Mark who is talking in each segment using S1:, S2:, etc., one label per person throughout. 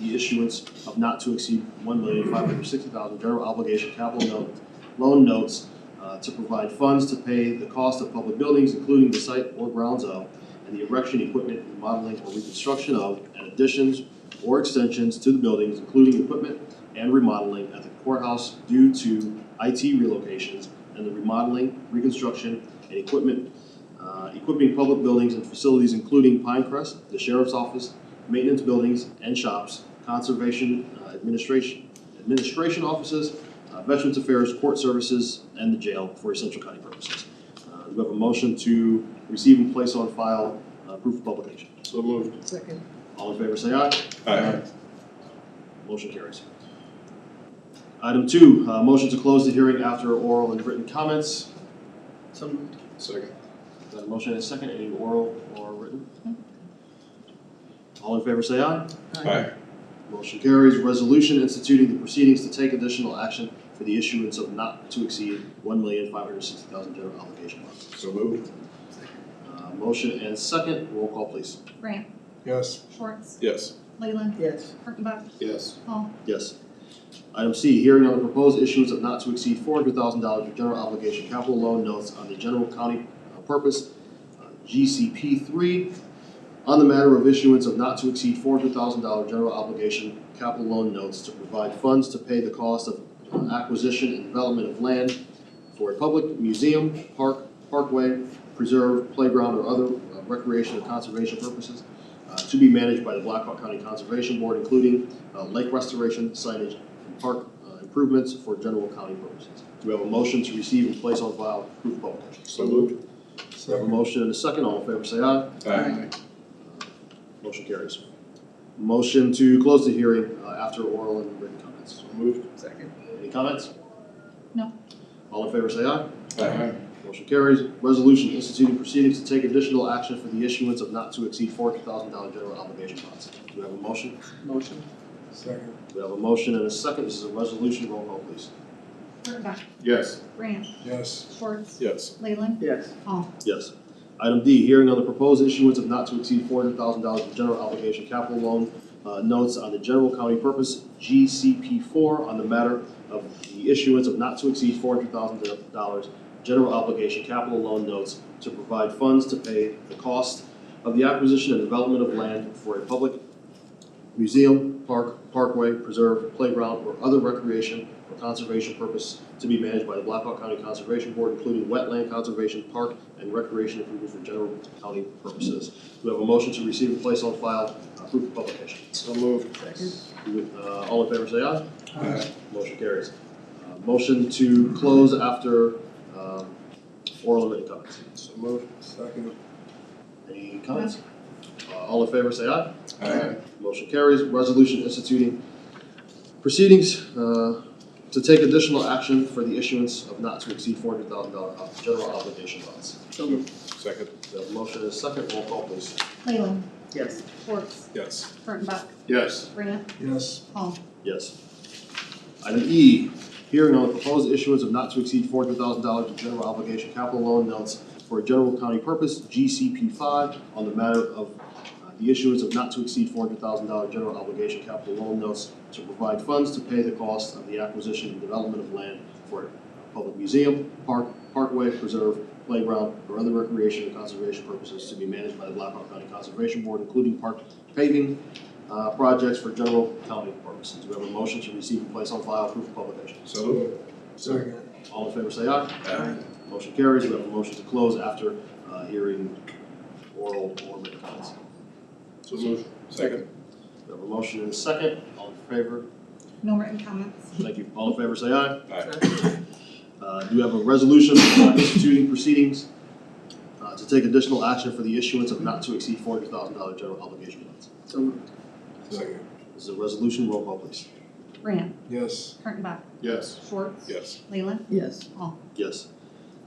S1: the issuance of not to exceed one million five hundred sixty thousand general obligation capital note, loan notes uh, to provide funds to pay the cost of public buildings, including the site or grounds of, and the erection, equipment, remodeling, or reconstruction of, and additions or extensions to the buildings, including equipment and remodeling at the courthouse due to IT relocations and the remodeling, reconstruction, and equipment, uh, equipping public buildings and facilities including Pinecrest, the sheriff's office, maintenance buildings and shops, conservation, uh, administration, administration offices, uh, Veterans Affairs, Court Services, and the jail for essential county purposes. Uh, Do we have a motion to receive and place on file uh, proof of publication?
S2: So moved.
S3: Second.
S1: All in favor, say aye.
S2: Aye.
S1: Motion carries. Item two, uh, motion to close the hearing after oral and written comments.
S3: So moved.
S2: Second.
S1: Got a motion and a second, any oral or written? All in favor, say aye.
S2: Aye.
S1: Motion carries. Resolution instituting the proceedings to take additional action for the issuance of not to exceed one million five hundred sixty thousand general obligation bonds.
S2: So moved.
S1: Uh, motion and second, roll call please.
S4: Grant,
S2: Yes.
S4: Schwartz,
S2: Yes.
S4: Leyland,
S3: Yes.
S4: Kurttenbach,
S2: Yes.
S4: Hall,
S1: Yes. Item C, hearing on the proposed issuance of not to exceed four hundred thousand dollars of general obligation capital loan notes on the general county uh, purpose, uh, GCP three, on the matter of issuance of not to exceed four hundred thousand dollar general obligation capital loan notes to provide funds to pay the cost of uh, acquisition and development of land for a public museum, park, parkway, preserve, playground, or other uh, recreation or conservation purposes uh, to be managed by the Blackhawk County Conservation Board, including uh, lake restoration, signage, and park uh, improvements for general county purposes. Do we have a motion to receive and place on file proof of publication?
S2: So moved.
S1: We have a motion and a second, all in favor say aye.
S2: Aye.
S1: Motion carries. Motion to close the hearing uh, after oral and written comments.
S2: So moved.
S3: Second.
S1: Any comments?
S4: No.
S1: All in favor say aye.
S2: Aye.
S1: Motion carries. Resolution instituting proceedings to take additional action for the issuance of not to exceed four hundred thousand dollar general obligation bonds. Do we have a motion?
S3: Motion.
S2: Second.
S1: We have a motion and a second. This is a resolution. Roll call, please.
S4: Kurttenbach,
S2: Yes.
S4: Grant,
S2: Yes.
S4: Schwartz,
S2: Yes.
S4: Leyland,
S3: Yes.
S4: Hall,
S1: Yes. Item D, hearing on the proposed issuance of not to exceed four hundred thousand dollars of general obligation capital loan uh, notes on the general county purpose, GCP four, on the matter of the issuance of not to exceed four hundred thousand dollars general obligation capital loan notes to provide funds to pay the cost of the acquisition and development of land for a public museum, park, parkway, preserve, playground, or other recreation or conservation purpose to be managed by the Blackhawk County Conservation Board, including wetland conservation, park, and recreation improvements for general county purposes. Do we have a motion to receive and place on file, uh, proof of publication?
S2: So moved.
S3: Second.
S1: Do we- uh, all in favor say aye.
S2: Aye.
S1: Motion carries. Uh, motion to close after, um, oral and written comments.
S2: So moved. Second.
S1: Any comments? Uh, all in favor say aye.
S2: Aye.
S1: Motion carries. Resolution instituting proceedings uh, to take additional action for the issuance of not to exceed four hundred thousand dollar general obligation bonds.
S3: So moved.
S2: Second.
S1: The motion is second. Roll call, please.
S4: Leyland,
S3: Yes.
S4: Schwartz,
S2: Yes.
S4: Kurttenbach,
S2: Yes.
S4: Grant,
S2: Yes.
S4: Hall,
S1: Yes. Item E, hearing on the proposed issuance of not to exceed four hundred thousand dollars in general obligation capital loan notes for a general county purpose, GCP five, on the matter of uh, the issuance of not to exceed four hundred thousand dollar general obligation capital loan notes to provide funds to pay the cost of the acquisition and development of land for a public museum, park, parkway, preserve, playground, or other recreation and conservation purposes to be managed by the Blackhawk County Conservation Board, including park paving, uh, projects for general county purposes. Do we have a motion to receive and place on file proof of publication?
S2: So moved. Second.
S1: All in favor say aye.
S2: Aye.
S1: Motion carries. We have a motion to close after uh, hearing oral or written comments.
S2: So moved. Second.
S1: We have a motion and a second. All in favor?
S4: no written comments.
S1: Thank you. All in favor say aye.
S2: Aye.
S1: Uh, Do we have a resolution uh, instituting proceedings uh, to take additional action for the issuance of not to exceed four hundred thousand dollar general obligation bonds?
S3: So moved.
S2: Second.
S1: This is a resolution. Roll call, please.
S4: Grant,
S2: Yes.
S4: Kurttenbach,
S2: Yes.
S4: Schwartz,
S2: Yes.
S4: Leyland,
S3: Yes.
S4: Hall,
S1: Yes.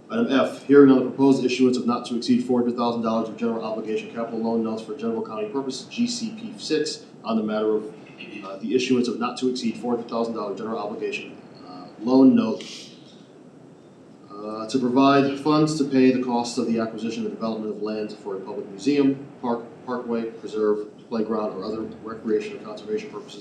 S1: Item F, hearing on the proposed issuance of not to exceed four hundred thousand dollars of general obligation capital loan notes for general county purpose, GCP six, on the matter of uh, the issuance of not to exceed four hundred thousand dollar general obligation uh, loan note uh, to provide funds to pay the cost of the acquisition and development of lands for a public museum, park, parkway, preserve, playground, or other recreation or conservation purposes